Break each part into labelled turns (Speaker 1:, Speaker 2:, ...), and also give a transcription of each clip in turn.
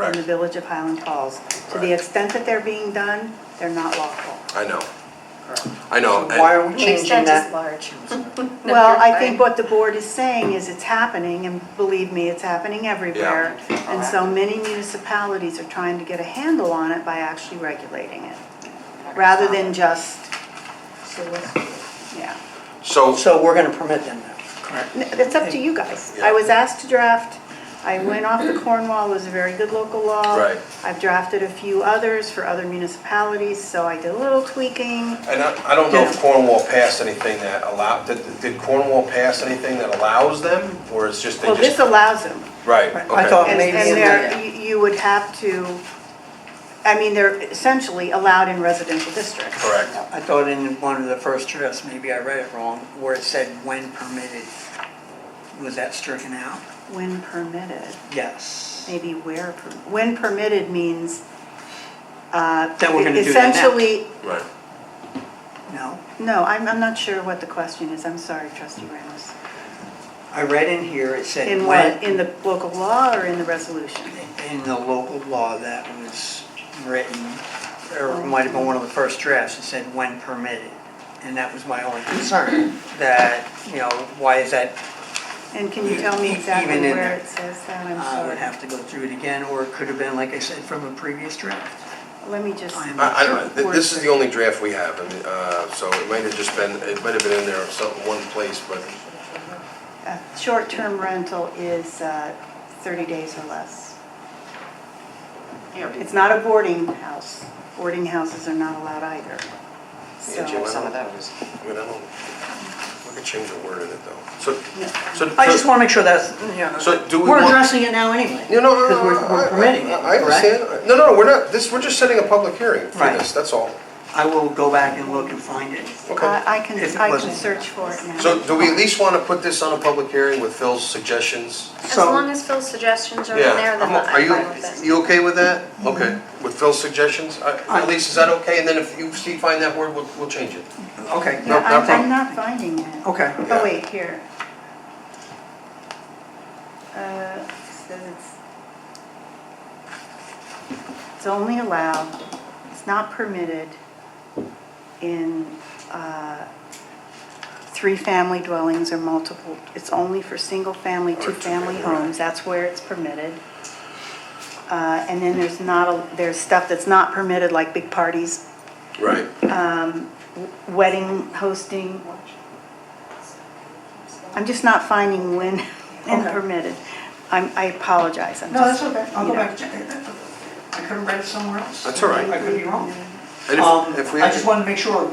Speaker 1: in the village of Highland Falls. To the
Speaker 2: Correct.
Speaker 1: extent that they're being done, they're not lawful.
Speaker 2: I know. I know. and-
Speaker 3: Why are we
Speaker 4: The
Speaker 3: changing
Speaker 4: extent is
Speaker 3: that?
Speaker 4: large.
Speaker 1: Well, I think
Speaker 4: fine.
Speaker 1: what the board is saying is it's happening, and believe me, it's happening everywhere. And so many municipalities are trying to get a handle on it by actually regulating it, rather than just, yeah.
Speaker 2: So,
Speaker 3: So we're gonna permit them now, correct?
Speaker 1: N- It's up to you guys. I was asked to draft, I went off the Cornwall, it was a very good local law.
Speaker 2: Right.
Speaker 1: I've drafted a few others for other municipalities, so I did a little tweaking.
Speaker 2: and I, I don't know if
Speaker 1: Yeah.
Speaker 2: Cornwall passed anything that allowed, did, did Cornwall pass anything that allows them? Or it's just, they
Speaker 1: Well, this
Speaker 2: just,
Speaker 1: allows them.
Speaker 2: right,
Speaker 3: I
Speaker 2: okay.
Speaker 3: thought-
Speaker 1: And
Speaker 3: maybe
Speaker 1: and
Speaker 3: in
Speaker 1: they're,
Speaker 4: the-
Speaker 1: you you would have to, I mean, they're essentially allowed in residential districts.
Speaker 2: Correct.
Speaker 3: I thought in one of the first drafts, maybe I read it wrong, where it said when permitted. Was that stricken out?
Speaker 1: When permitted,
Speaker 3: Yes.
Speaker 1: maybe where, per- when permitted means. uh,
Speaker 3: That we're gonna do that now?
Speaker 1: Essentially,
Speaker 2: Right.
Speaker 3: No?
Speaker 1: no, I'm, I'm not sure what the question is. I'm sorry, trustee Ramos.
Speaker 3: I read in here, it said.
Speaker 1: In
Speaker 3: when-
Speaker 1: what, in the local law or in the resolution?
Speaker 3: in the local law that was written, or it might have been one of the first drafts, it said when permitted. And that was my only concern, that, you know, why is that,
Speaker 1: And can you tell me
Speaker 3: Even
Speaker 1: exactly
Speaker 3: in
Speaker 1: where
Speaker 3: there.
Speaker 1: it says that? I'm
Speaker 3: I uh,
Speaker 1: sorry.
Speaker 3: would have to go through it again, or it could have been, like I said, from a previous draft.
Speaker 1: Let me just.
Speaker 3: I'm-
Speaker 2: I, I don't, th-
Speaker 1: Word
Speaker 2: this is
Speaker 1: search.
Speaker 2: the only draft we have, and, uh, so it might have just been, it might have been in there some, one place, but,
Speaker 1: Uh, Short-term rental is uh, 30 days or less. It's not a boarding house. Boarding houses are not allowed either. So-
Speaker 2: Angie, why
Speaker 4: Some of
Speaker 2: don't-
Speaker 4: those.
Speaker 2: I mean, I don't, we could change a word in it though. So,
Speaker 1: Yeah.
Speaker 2: so.
Speaker 3: I just wanna make sure that's, you know,
Speaker 2: So do we
Speaker 3: we're
Speaker 2: want-
Speaker 3: addressing it now anyway.
Speaker 2: You know,
Speaker 3: Because we're, we're permitting it,
Speaker 2: I
Speaker 3: correct?
Speaker 2: understand. No, no, we're not, this, we're just setting a public hearing for
Speaker 3: Right.
Speaker 2: this, that's all.
Speaker 3: I will go back and look and find it.
Speaker 2: Okay.
Speaker 1: I I can,
Speaker 3: If it
Speaker 1: I can
Speaker 3: wasn't-
Speaker 1: search for it now.
Speaker 2: So do we at least want to put this on a public hearing with Phil's suggestions?
Speaker 4: As
Speaker 3: So-
Speaker 4: long as Phil's suggestions are in
Speaker 2: Yeah,
Speaker 4: there, then
Speaker 2: I'm o-
Speaker 4: I'm fine
Speaker 2: Are you,
Speaker 4: with it.
Speaker 2: you okay with that?
Speaker 3: Mm-hmm.
Speaker 2: Okay. With Phil's suggestions? At least, is that okay? And then if you see, find that word, we'll, we'll change it.
Speaker 3: Okay,
Speaker 1: Yeah,
Speaker 2: no
Speaker 1: I'm,
Speaker 2: problem.
Speaker 1: I'm not finding it.
Speaker 3: okay.
Speaker 1: Oh, wait, here. Uh, it says it's, it's only allowed, it's not permitted in, uh, three-family dwellings or multiple, it's only for single-family, two-family homes, that's where it's permitted. Uh, and then there's not, a there's stuff that's not permitted, like big parties,
Speaker 2: Right.
Speaker 1: wedding hosting. I'm just not finding when and
Speaker 3: Okay.
Speaker 1: permitted. I'm, I apologize, I'm
Speaker 3: No, that's
Speaker 1: just.
Speaker 3: okay, I'll
Speaker 1: you
Speaker 3: go
Speaker 1: know.
Speaker 3: back and check it. I could have read it somewhere else.
Speaker 2: That's all right.
Speaker 3: I could be wrong.
Speaker 2: And
Speaker 3: Um,
Speaker 2: if, if we,
Speaker 3: I just
Speaker 2: yeah,
Speaker 3: wanted to make sure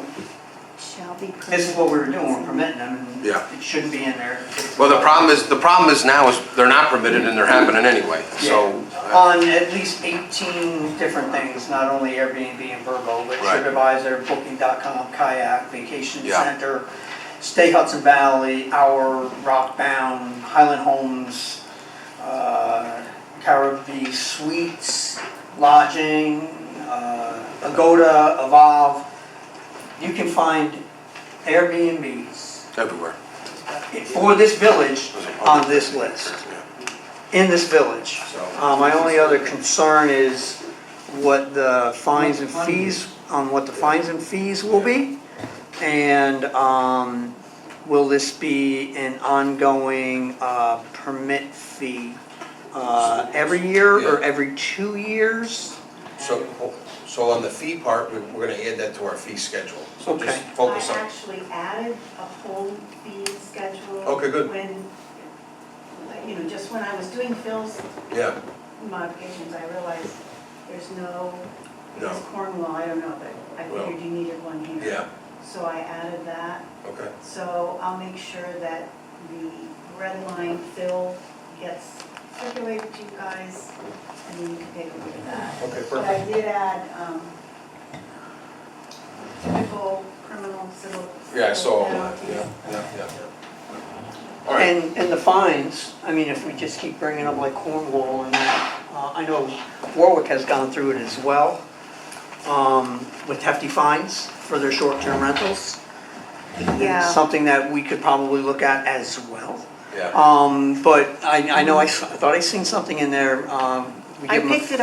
Speaker 1: Shall be permitted.
Speaker 3: this is what we were doing, we're permitting them. and
Speaker 2: Yeah.
Speaker 3: It shouldn't be in there.
Speaker 2: well, the problem is, the problem is now is they're not permitted and they're happening anyway, so. uh,
Speaker 3: Yeah. On at least eighteen different things, not only Airbnb and Verbo, but
Speaker 2: Right.
Speaker 3: TripAdvisor, Booking.com, Kayak, Vacation
Speaker 2: Yeah.
Speaker 3: Center, Stay Hudson Valley, Our, Rockbound, Highland Homes, uh, Caribbean Suites, Lodging, uh, Agoda, Evolve. You can find Airbnbs
Speaker 2: Everywhere.
Speaker 3: for this village on this list
Speaker 2: Yeah.
Speaker 3: in this village. Uh, My only other concern is what the fines and fees, on what the fines and fees will be. And um, will this be an ongoing uh, permit fee uh, every year or
Speaker 2: Yeah.
Speaker 3: every two years?
Speaker 2: So, so on the fee part, we- we're gonna add that to our fee schedule. So just
Speaker 3: Okay.
Speaker 2: focus
Speaker 1: I
Speaker 2: on,
Speaker 1: actually added a whole fee schedule.
Speaker 2: Okay, good.
Speaker 1: When, you know, just when I was doing Phil's
Speaker 2: yeah,
Speaker 1: modifications, I realized there's no,
Speaker 2: No.
Speaker 1: it's Cornwall, I don't know, but I
Speaker 2: Well,
Speaker 1: figured you needed one here.
Speaker 2: yeah,
Speaker 1: So I added that.
Speaker 2: okay,
Speaker 1: So I'll make sure that the red line fill gets circulated to you guys, and then you can take a look at that.
Speaker 2: okay,
Speaker 1: But
Speaker 2: perfect.
Speaker 1: I did add um, typical criminal civil.
Speaker 2: Yeah, I saw all
Speaker 1: civil
Speaker 2: that, yeah,
Speaker 1: penalties.
Speaker 2: yeah, yeah. yeah. All right,
Speaker 3: And, and the fines, I mean, if we just keep bringing up like Cornwall and that, uh, I know Warwick has gone through it as well, um, with hefty fines for their short-term rentals.
Speaker 1: Yeah.
Speaker 3: Something that we could probably look at as well.
Speaker 2: yeah.
Speaker 3: Um, but I, I know I, s- I thought I seen something in there, um. we
Speaker 1: I
Speaker 3: give 'em a
Speaker 1: picked it